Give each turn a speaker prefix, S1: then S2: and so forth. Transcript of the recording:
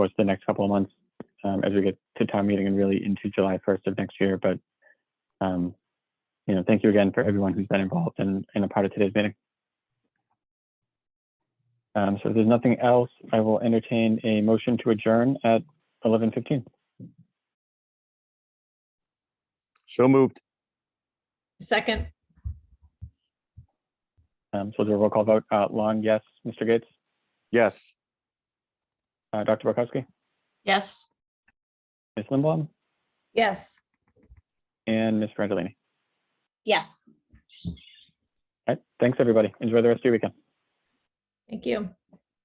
S1: course the next couple of months um, as we get to town meeting and really into July 1st of next year. But um, you know, thank you again for everyone who's been involved and, and a part of today's meeting. Um, so if there's nothing else, I will entertain a motion to adjourn at 11:15.
S2: So moved.
S3: Second,
S1: Um, so we'll do a roll call vote. Uh, Lon, yes. Mr. Gates,
S2: Yes.
S1: uh, Dr. Barkowski,
S3: yes.
S1: Ms. Lindblom,
S3: Yes.
S1: and Ms. Frangelini.
S3: Yes.
S1: All right. Thanks, everybody. Enjoy the rest of your weekend.
S3: Thank you.